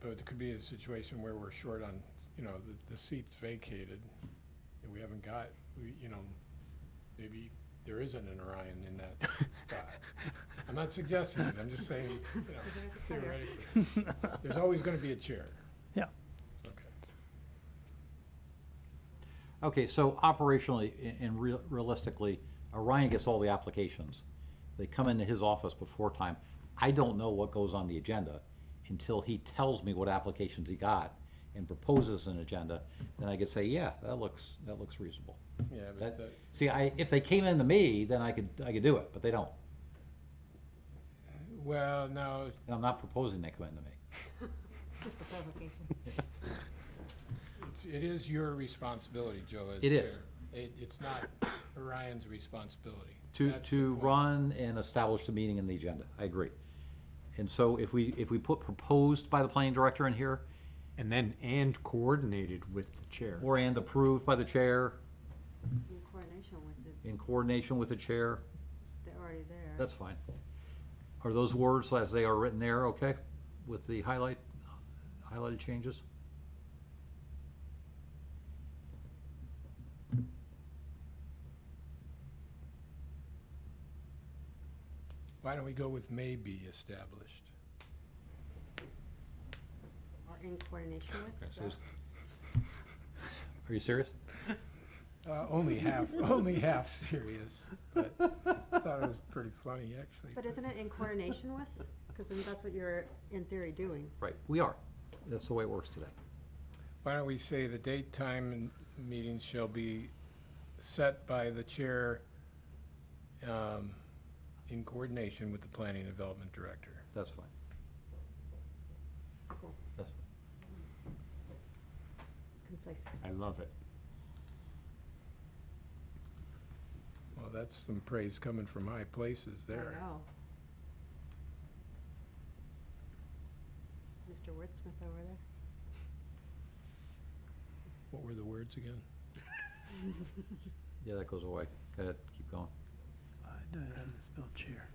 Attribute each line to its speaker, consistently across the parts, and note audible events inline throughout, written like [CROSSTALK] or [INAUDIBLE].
Speaker 1: But it could be a situation where we're short on, you know, the, the seat's vacated, and we haven't got, we, you know, maybe there isn't an Orion in that
Speaker 2: [LAUGHS]
Speaker 1: spot. I'm not suggesting it, I'm just saying, you know, theoretically. There's always gonna be a chair.
Speaker 3: Yeah.
Speaker 1: Okay.
Speaker 2: Okay, so operationally a- and real- realistically, Orion gets all the applications. They come into his office before time. I don't know what goes on the agenda until he tells me what applications he got and proposes an agenda, then I could say, yeah, that looks, that looks reasonable.
Speaker 1: Yeah, but
Speaker 2: That-
Speaker 1: that,
Speaker 2: See, I, if they came in to me, then I could, I could do it, but they don't.
Speaker 1: well, no,
Speaker 2: And I'm not proposing they come in to me.
Speaker 4: Just for
Speaker 2: [LAUGHS]
Speaker 4: clarification.
Speaker 1: it's, it is your responsibility, Joe, as chair.
Speaker 2: It is.
Speaker 1: It, it's not Orion's responsibility.
Speaker 2: To,
Speaker 1: That's the
Speaker 2: to
Speaker 1: point.
Speaker 2: run and establish the meeting and the agenda, I agree. And so if we, if we put proposed by the planning director in here,
Speaker 5: And then, and coordinated with the chair.
Speaker 2: or and approved by the chair
Speaker 4: In coordination with it,
Speaker 2: in coordination with the chair,
Speaker 4: they're already there.
Speaker 2: that's fine. Are those words as they are written there, okay, with the highlight, highlighted changes?
Speaker 1: Why don't we go with may be established?
Speaker 4: Or in coordination with.
Speaker 2: so
Speaker 4: so-
Speaker 2: it's- [LAUGHS] Are you serious?
Speaker 1: Uh, only half, [LAUGHS] only half serious, but I thought it was pretty funny, actually.
Speaker 4: But isn't it in coordination with? Because then that's what you're in theory doing.
Speaker 2: Right, we are. That's the way it works today.
Speaker 1: Why don't we say the date, time, and meetings shall be set by the chair um, in coordination with the planning and development director?
Speaker 2: That's fine.
Speaker 4: Cool.
Speaker 2: That's fine.
Speaker 4: Concise.
Speaker 5: I love it.
Speaker 1: Well, that's some praise coming from high places there.
Speaker 4: Oh. Mr. Wordsmith over there.
Speaker 1: What were the words again?
Speaker 2: Yeah, that goes away. Go ahead, keep going.
Speaker 3: I didn't misspell chair.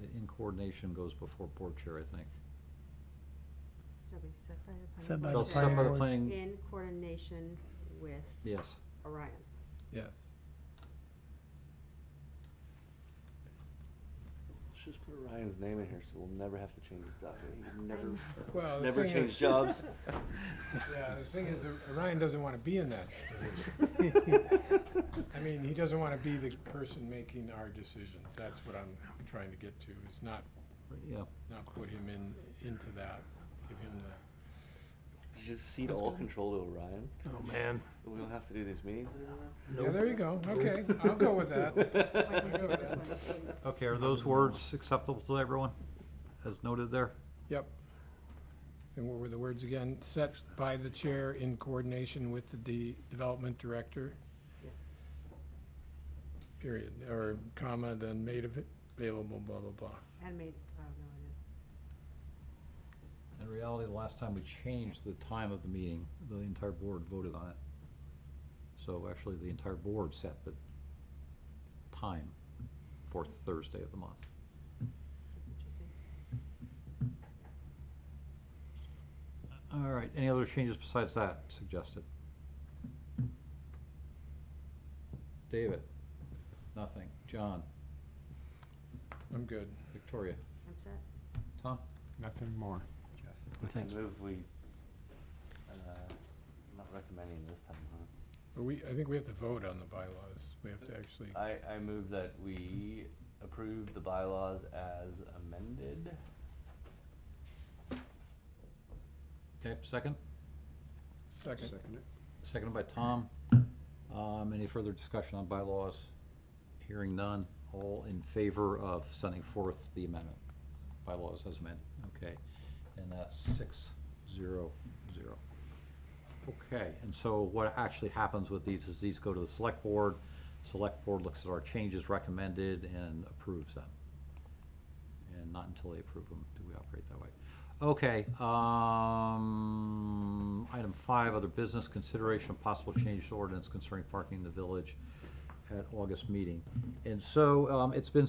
Speaker 2: The in coordination goes before board chair, I think.
Speaker 4: Shall be set by the.
Speaker 3: Set by
Speaker 4: planning
Speaker 3: the planning
Speaker 4: board
Speaker 2: Shall set by the
Speaker 3: board.
Speaker 2: planning,
Speaker 4: In coordination with
Speaker 2: yes.
Speaker 4: Orion.
Speaker 1: Yes.
Speaker 6: Let's just put Ryan's name in here, so we'll never have to change his document. He can never,
Speaker 1: [LAUGHS] Well, the
Speaker 6: never
Speaker 1: thing
Speaker 6: change
Speaker 1: is- [LAUGHS]
Speaker 6: jobs.
Speaker 1: Yeah, the thing is, uh, Ryan doesn't want to be in that position. I mean, he doesn't want to be the person making our decisions. That's what I'm trying to get to, is not,
Speaker 2: Yeah,
Speaker 1: not put him in, into that, give him the,
Speaker 6: You just cede all control to Ryan.
Speaker 3: Oh, man.
Speaker 6: We don't have to do these meetings anymore.
Speaker 1: yeah, there you go, okay, I'll go with that.
Speaker 4: Wait, wait,
Speaker 1: go
Speaker 4: wait,
Speaker 1: with
Speaker 4: this
Speaker 1: that.
Speaker 4: one.
Speaker 2: okay, are those words acceptable to everyone, as noted there?
Speaker 1: Yep. And what were the words again? Set by the chair in coordination with the de- development director,
Speaker 4: Yes.
Speaker 1: period, or comma, then made av- available, blah, blah, blah.
Speaker 4: And made, oh, no, it is.
Speaker 2: In reality, the last time we changed the time of the meeting, the entire board voted on it. So actually, the entire board set the time, fourth Thursday of the month.
Speaker 4: That's interesting.
Speaker 2: All right, any other changes besides that suggested? David? Nothing. John?
Speaker 1: I'm good.
Speaker 2: Victoria?
Speaker 4: I'm set.
Speaker 2: Tom?
Speaker 5: Nothing more.
Speaker 6: I move we, uh, I'm not recommending this time, huh?
Speaker 1: But we, I think we have to vote on the bylaws. We have to actually,
Speaker 6: I, I move that we approve the bylaws as amended.
Speaker 2: Okay, second?
Speaker 1: second.
Speaker 2: Seconded by Tom. Um, Any further discussion on bylaws? Hearing none, all in favor of sending forth the amendment, bylaws as amended, okay? And that's six, zero, zero. Okay, and so what actually happens with these is these go to the select board. Select board looks at our changes recommended and approves them. And not until they approve them do we operate that way. Okay, um, item five, other business consideration of possible change to ordinance concerning parking in the village at August meeting. And so, um, it's been